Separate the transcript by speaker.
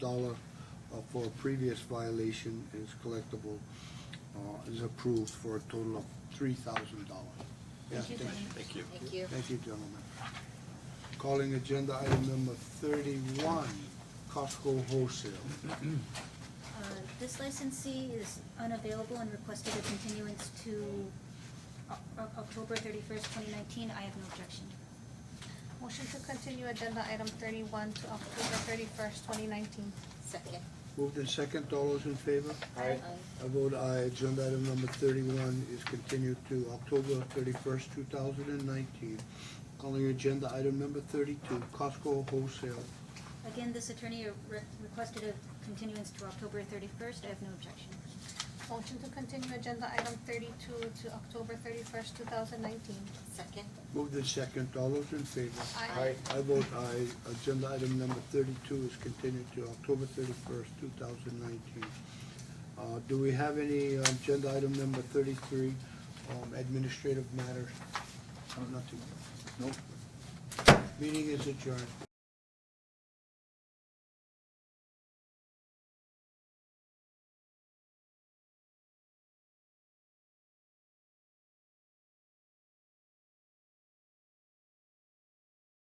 Speaker 1: dollar uh, for a previous violation is collectible, uh, is approved for a total of three thousand dollars.
Speaker 2: Thank you, Dennis.
Speaker 3: Thank you.
Speaker 2: Thank you.
Speaker 1: Thank you, gentlemen. Calling agenda item number thirty-one, Costco Wholesale.
Speaker 2: Uh, This licensee is unavailable and requested a continuance to O- O- October thirty-first, twenty nineteen. I have no objection.
Speaker 4: Motion to continue agenda item thirty-one to October thirty-first, twenty nineteen.
Speaker 2: Second.
Speaker 1: Moved in second, all those in favor?
Speaker 2: Aye.
Speaker 1: I vote aye, agenda item number thirty-one is continued to October thirty-first, two thousand and nineteen. Calling agenda item number thirty-two, Costco Wholesale.
Speaker 2: Again, this attorney re- requested a continuance to October thirty-first. I have no objection.
Speaker 4: Motion to continue agenda item thirty-two to October thirty-first, two thousand nineteen.
Speaker 2: Second.
Speaker 1: Moved in second, all those in favor?
Speaker 4: Aye.
Speaker 1: I vote aye. Agenda item number thirty-two is continued to October thirty-first, two thousand nineteen. Uh, do we have any uh, agenda item number thirty-three, um, administrative matters? Uh, Nothing. Nope. Meeting is adjourned.